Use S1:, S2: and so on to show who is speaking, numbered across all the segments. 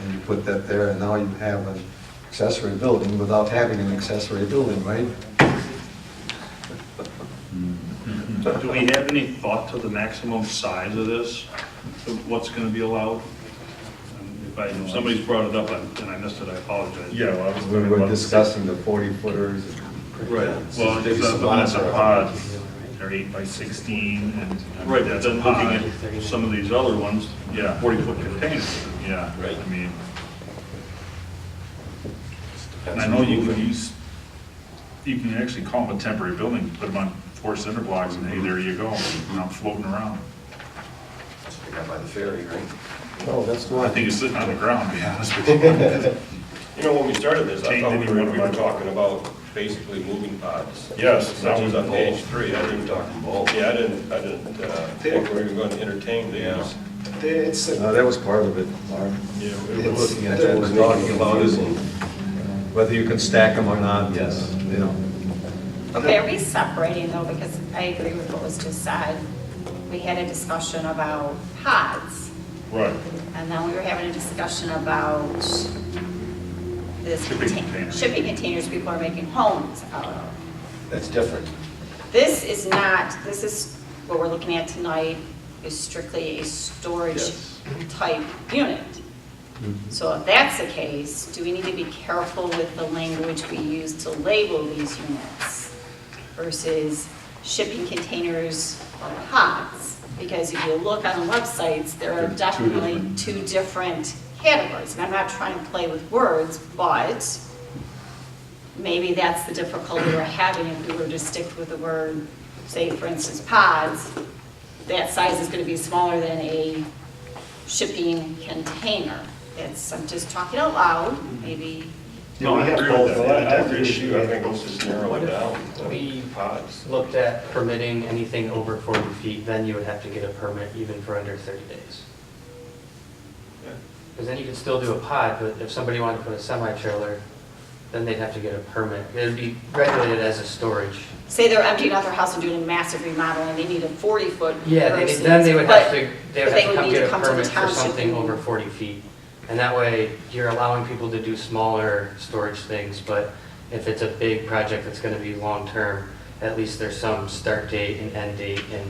S1: and you put that there, and now you have an accessory building without having an accessory building, right?
S2: Do we have any thought to the maximum size of this, of what's gonna be allowed? Um, If I, if somebody's brought it up and and I missed it, I apologize.
S3: Yeah, well, I was
S1: We
S3: gonna.
S1: were discussing the 40 footers.
S2: Right,
S3: Well, it's a, well, it's a pod, they're eight by sixteen and.
S2: Right, but then looking
S3: pod.
S2: at some of these other ones, yeah, forty-foot containers,
S3: Yeah,
S4: Right.
S3: I mean. And I know you can use, you can actually call them a temporary building, put them on four cinder blocks and hey, there you go, and I'm floating around.
S4: I got by the ferry, right?
S1: No, Oh, that's
S3: I
S1: one.
S3: think it's sitting on the ground, to be honest with you.
S4: You know, when we started this, I
S3: Change
S4: thought we were,
S3: anyone
S4: we were
S3: around.
S4: talking about basically moving pods.
S3: Yes,
S4: Such as on
S3: that was-
S4: page three, I didn't talk about, yeah, I didn't, I didn't, uh, think we were gonna entertain uh, these.
S5: It's,
S1: No, Uh, that was part of it, Mark.
S4: Yeah, we
S1: It's-
S4: were looking at
S1: that
S4: that,
S1: was
S4: we're talking
S1: making
S4: about is,
S1: confusing. Whether you can stack them or not, yes, you know.
S6: Okay, are we separating though, because I agree with what was just said. We had a discussion about pods,
S3: Right.
S6: and then we were having a discussion about this
S3: Shipping
S6: contain-
S3: containers.
S6: shipping containers people are making homes out of.
S4: that's different.
S6: This is not, this is, what we're looking at tonight is strictly a storage type unit. So if that's the case, do we need to be careful with the language we use to label these units versus shipping containers or pods? Because if you look on the websites, there are definitely two different categories. And I'm not trying to play with words, but maybe that's the difficulty we're having if we were to stick with the word, say, for instance, pods, that size is gonna be smaller than a shipping container. It's, I'm just talking out
S7: Mm-hmm.
S6: loud, maybe,
S2: No, I agree with that.
S4: Well, that's the issue, I think let's just narrow it down,
S7: We-
S4: pods.
S7: Looked at permitting anything over 40 feet, then you would have to get a permit even for under 30 days.
S4: Yeah.
S7: Because then you could still do a pod, but if somebody wanted to put a semi-trailer, then they'd have to get a permit. It'd be regulated as a storage.
S6: say they're emptying out their house and doing a massive remodel and they need a forty-foot
S7: Yeah, they-
S6: versus-
S7: then they would have
S6: but-
S7: to,
S6: but
S7: they would have to come
S6: need
S7: get a
S6: the
S7: permit for
S6: township
S7: something
S6: and-
S7: over 40 feet. And that way, you're allowing people to do smaller storage things, but if it's a big project that's going to be long-term, at least there's some start date and end date and.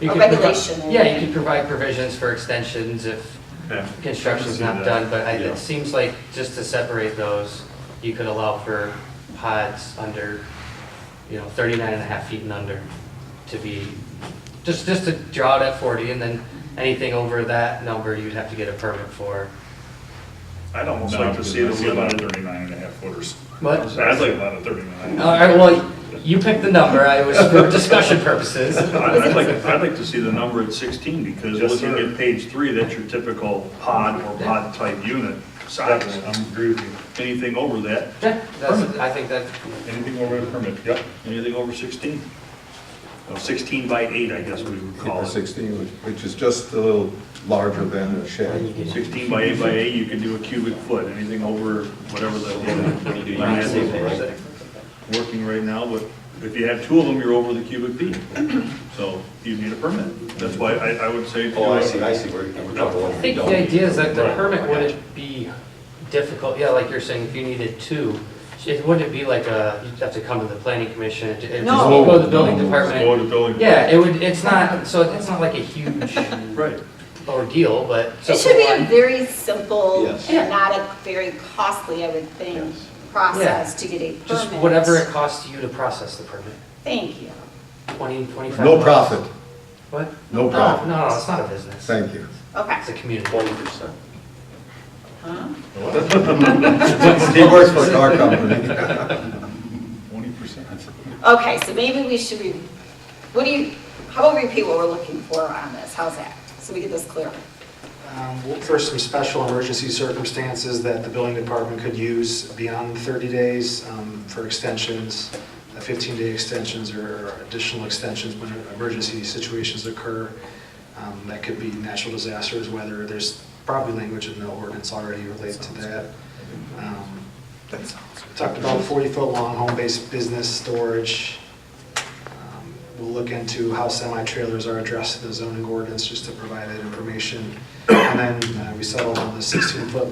S7: you
S6: A
S7: could provi-
S6: regulation and-
S7: Yeah, you could provide provisions for extensions if
S3: Yeah.
S7: construction's
S3: See
S7: not
S3: that.
S7: done, but I-
S3: Yeah.
S7: it seems like just to separate those, you could allow for pods under, you know, 39 and a half feet and under to be, just, just to draw it at 40, and then anything over that number, you'd have to get a permit for.
S3: I'd almost like to see this lot of thirty-nine and a half footers.
S7: What?
S3: I'd like a lot of thirty-nine.
S7: All right, well, you picked the number, I was, for discussion purposes.
S2: I'd I'd like, I'd like to see the number at sixteen, because
S3: Yes,
S2: looking
S3: sir.
S2: at page three, that's your typical pod or pod-type unit size. I'm agree with you. Anything over that,
S7: Yeah, that's, I think that,
S3: Anything over a permit, yep.
S2: anything over sixteen. Well, Sixteen by eight, I guess we would call
S1: Or
S2: it.
S1: 16, which- which is just a little larger than a
S7: then you
S1: shed.
S7: get.
S2: Sixteen by eight by eight, you can do a cubic foot, anything over whatever
S4: When you
S2: the.
S4: do
S2: line
S4: your
S2: is
S4: civil, right?
S2: Working right now, but if you have two of them, you're over the cubic feet, so you need a permit. That's why I, I would say.
S4: Oh, I see, I see, we're, we're talking
S7: I
S4: about.
S7: think the idea is that the permit wouldn't be difficult, yeah, like you're saying, if you needed two, it wouldn't be like a, you'd have to come to the planning commission, it'd it'd just
S6: No.
S7: go to the building
S3: Go
S7: department.
S3: to building.
S7: Yeah, it would, it's not, so it's not like a huge
S2: Right.
S7: ordeal, but.
S6: It should be a very simple,
S4: Yes.
S6: and not a very costly, I would think,
S4: Yes.
S6: process to get a permit.
S7: Just whatever it costs you to process the permit,
S6: Thank you.
S7: twenty, twenty-five.
S1: No
S7: bucks.
S1: profit,
S7: What?
S1: no
S7: No,
S1: profit.
S7: no, no, it's not a business.
S1: Thank you.
S6: Okay.
S7: It's a community.
S4: Twenty percent.
S6: Huh?
S1: He works for a car company.
S3: Twenty percent.
S6: Okay, so maybe we should, re- what do you, how about we repeat what we're looking for on this? How's that? So we get this clear.
S5: um, well, for some special emergency circumstances that the building department could use beyond 30 days um, for extensions, 15-day extensions or additional extensions when emergency situations occur. Um, That could be natural disasters, whether there's probably language in the ordinance already related to that. Um, Talked about 40-foot long home-based business storage. Um, We'll look into how semi-trailers are addressed in the zoning ordinance, just to provide that information. And then uh, we settled on the 16-foot